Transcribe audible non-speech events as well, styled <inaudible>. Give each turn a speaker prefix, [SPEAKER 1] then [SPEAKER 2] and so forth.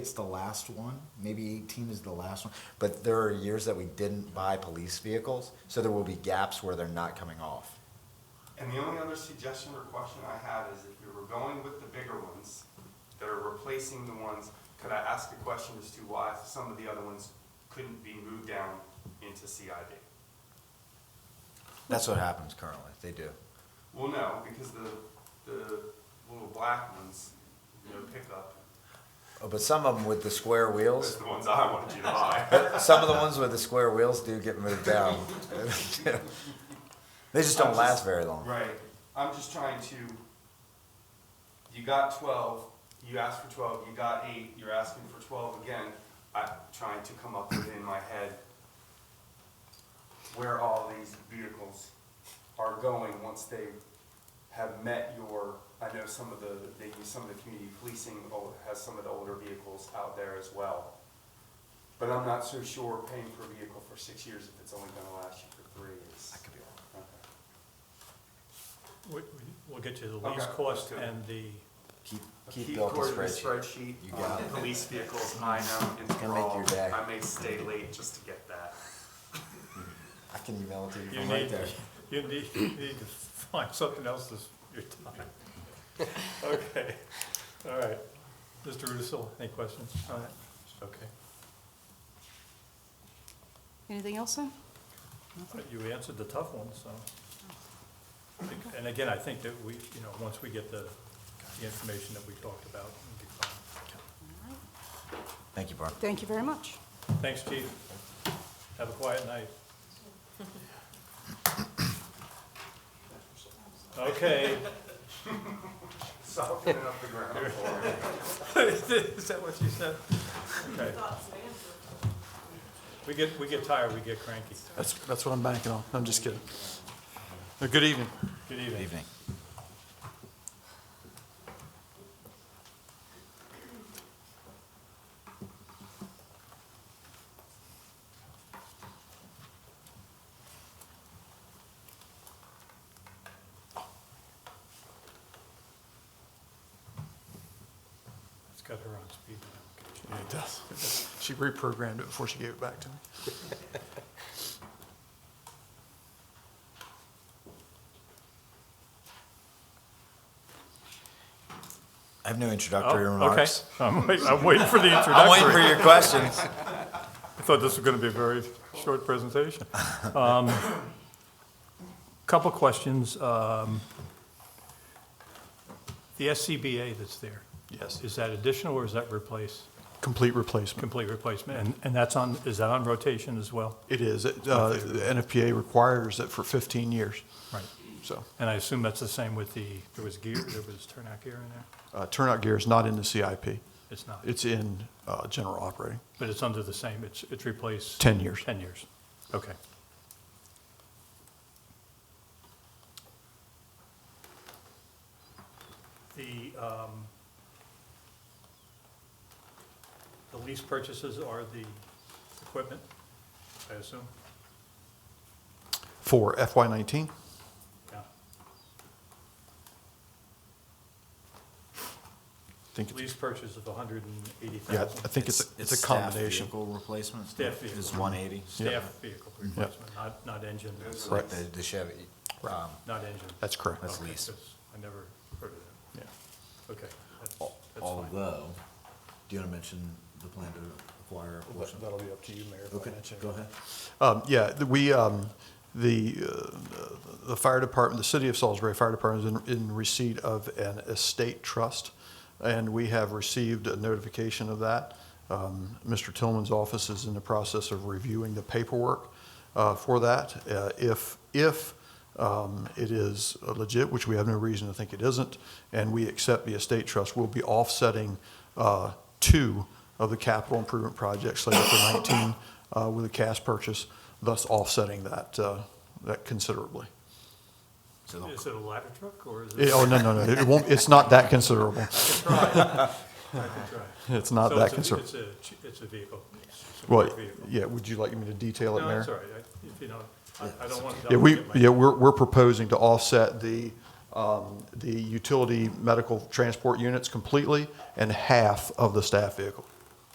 [SPEAKER 1] It's the last one, maybe eighteen is the last one, but there are years that we didn't buy police vehicles, so there will be gaps where they're not coming off.
[SPEAKER 2] And the only other suggestion or question I have is if you were going with the bigger ones that are replacing the ones, could I ask a question as to why some of the other ones couldn't be moved down into CID?
[SPEAKER 1] That's what happens currently, they do.
[SPEAKER 2] Well, no, because the, the little black ones, you know, pickup,
[SPEAKER 1] Oh, But some of them with the square
[SPEAKER 2] those
[SPEAKER 1] wheels,
[SPEAKER 2] are the ones I wanted you to buy.
[SPEAKER 1] some of the ones with the square wheels do get moved down. <laughs> They just don't last very long.
[SPEAKER 2] Right, I'm just trying to, you got twelve, you asked for twelve, you got eight, you're asking for twelve again. I'm trying to come up within my head where all these vehicles are going once they have met your, I know some of the, they use some of the community policing o- has some of the older vehicles out there as well. But I'm not so sure paying for a vehicle for six years if it's only gonna last you for three is.
[SPEAKER 1] I could be wrong.
[SPEAKER 2] Okay.
[SPEAKER 3] We- we- We'll get you the lease
[SPEAKER 2] Okay, let's
[SPEAKER 3] cost
[SPEAKER 2] do it.
[SPEAKER 3] and the,
[SPEAKER 1] Keep, keep
[SPEAKER 2] Keep
[SPEAKER 1] building
[SPEAKER 2] recording the
[SPEAKER 1] spreadsheet.
[SPEAKER 2] spreadsheet
[SPEAKER 1] You got
[SPEAKER 2] on
[SPEAKER 1] it.
[SPEAKER 2] police vehicles, I know,
[SPEAKER 1] It's gonna
[SPEAKER 2] and
[SPEAKER 1] make
[SPEAKER 2] all,
[SPEAKER 1] your day.
[SPEAKER 2] I may stay late just to get that.
[SPEAKER 1] I can email it to you
[SPEAKER 3] you
[SPEAKER 1] from right
[SPEAKER 3] need,
[SPEAKER 1] there.
[SPEAKER 3] you need, you need to find something else this, your time.
[SPEAKER 2] <laughs>
[SPEAKER 3] Okay, all right. Mr. Rudisil, any questions on that? Okay,
[SPEAKER 4] Anything else, sir?
[SPEAKER 3] But you answered the tough one, so. And again, I think that we, you know, once we get the, the information that we talked about, it'll be fine.
[SPEAKER 1] Thank you, Barb.
[SPEAKER 4] Thank you very much.
[SPEAKER 3] Thanks, chief. Have a quiet
[SPEAKER 2] <laughs>
[SPEAKER 3] night. Okay,
[SPEAKER 2] Soften up the ground for it.
[SPEAKER 3] Is that what you said? Okay. We get, we get tired, we get cranky.
[SPEAKER 5] That's, that's what I'm banking on. I'm just kidding. Uh, Good evening.
[SPEAKER 3] Good
[SPEAKER 1] Good
[SPEAKER 3] evening.
[SPEAKER 1] evening.
[SPEAKER 3] It's got her on speed dial.
[SPEAKER 5] Yeah, it does. She reprogrammed it before she gave it back to me.
[SPEAKER 1] I have no introductory remarks.
[SPEAKER 3] Oh, Okay, I'm waiting, I'm waiting for
[SPEAKER 1] <laughs>
[SPEAKER 3] the
[SPEAKER 1] I'm waiting for
[SPEAKER 3] introductory.
[SPEAKER 1] your questions.
[SPEAKER 3] I thought this was gonna be a very short presentation. Um, Couple questions. um, The SCBA that's there,
[SPEAKER 5] Yes.
[SPEAKER 3] is that additional or is that replace,
[SPEAKER 5] Complete replacement.
[SPEAKER 3] complete replacement? And, and that's on, is that on rotation as well?
[SPEAKER 5] It is. It, uh, The NFPA requires it for 15 years.
[SPEAKER 3] Right.
[SPEAKER 5] So
[SPEAKER 3] And I assume that's the same with the, there was gear, there was turnout gear in there?
[SPEAKER 5] uh, turnout gear is not in the CIP.
[SPEAKER 3] It's not,
[SPEAKER 5] It's in uh, general operating.
[SPEAKER 3] but it's under the same, it's, it's replaced?
[SPEAKER 5] 10 years.
[SPEAKER 3] 10 years, okay. The, um, the lease purchases are the equipment, I assume?
[SPEAKER 5] For FY19,
[SPEAKER 3] Yeah.
[SPEAKER 5] I think it's,
[SPEAKER 3] Lease purchase of 180,000?
[SPEAKER 5] yeah, I think it's, it's a
[SPEAKER 1] staff
[SPEAKER 5] combination.
[SPEAKER 1] Vehicle replacement.
[SPEAKER 3] Staff
[SPEAKER 1] It's
[SPEAKER 3] vehicle.
[SPEAKER 1] one eighty.
[SPEAKER 3] Staff vehicle replacement, not, not engine,
[SPEAKER 5] Right.
[SPEAKER 1] The the Chevy, um,
[SPEAKER 3] not engine.
[SPEAKER 5] That's correct.
[SPEAKER 1] That's
[SPEAKER 3] Okay,
[SPEAKER 1] leased.
[SPEAKER 3] 'cause I never heard of that.
[SPEAKER 5] Yeah.
[SPEAKER 3] Okay, that's, that's fine.
[SPEAKER 1] although, do you want to mention the plan to acquire a portion?
[SPEAKER 5] That'll be up to you, Mayor.
[SPEAKER 1] Okay, go ahead.
[SPEAKER 5] Um, Yeah, the- we, um, the, uh, the fire department, the city of Salisbury Fire Department is in- in receipt of an estate trust, and we have received a notification of that. Um, Mr. Tillman's office is in the process of reviewing the paperwork uh, for that. Uh, If, if um, it is legit, which we have no reason to think it isn't, and we accept the estate trust, we'll be offsetting uh, two of the capital improvement projects slated for 19 uh, with a cash purchase, thus offsetting that, uh, that considerably.
[SPEAKER 1] So they'll-
[SPEAKER 3] Is it a ladder truck or is it?
[SPEAKER 5] Eh, Oh, no, no, no, it won't, it's not that considerable. <laughs> It's not
[SPEAKER 3] So
[SPEAKER 5] that
[SPEAKER 3] it's a-
[SPEAKER 5] considerable.
[SPEAKER 3] It's a, ch- it's a vehicle. It's a
[SPEAKER 5] Well,
[SPEAKER 3] vehicle.
[SPEAKER 5] yeah, would you like me to detail it,
[SPEAKER 3] No,
[SPEAKER 5] Mayor?
[SPEAKER 3] it's all right, I- if you don't, I I don't want to.
[SPEAKER 5] Yeah, we,
[SPEAKER 3] get my-
[SPEAKER 5] yeah, we're, we're proposing to offset the, um, the utility medical transport units completely and half of the staff vehicle.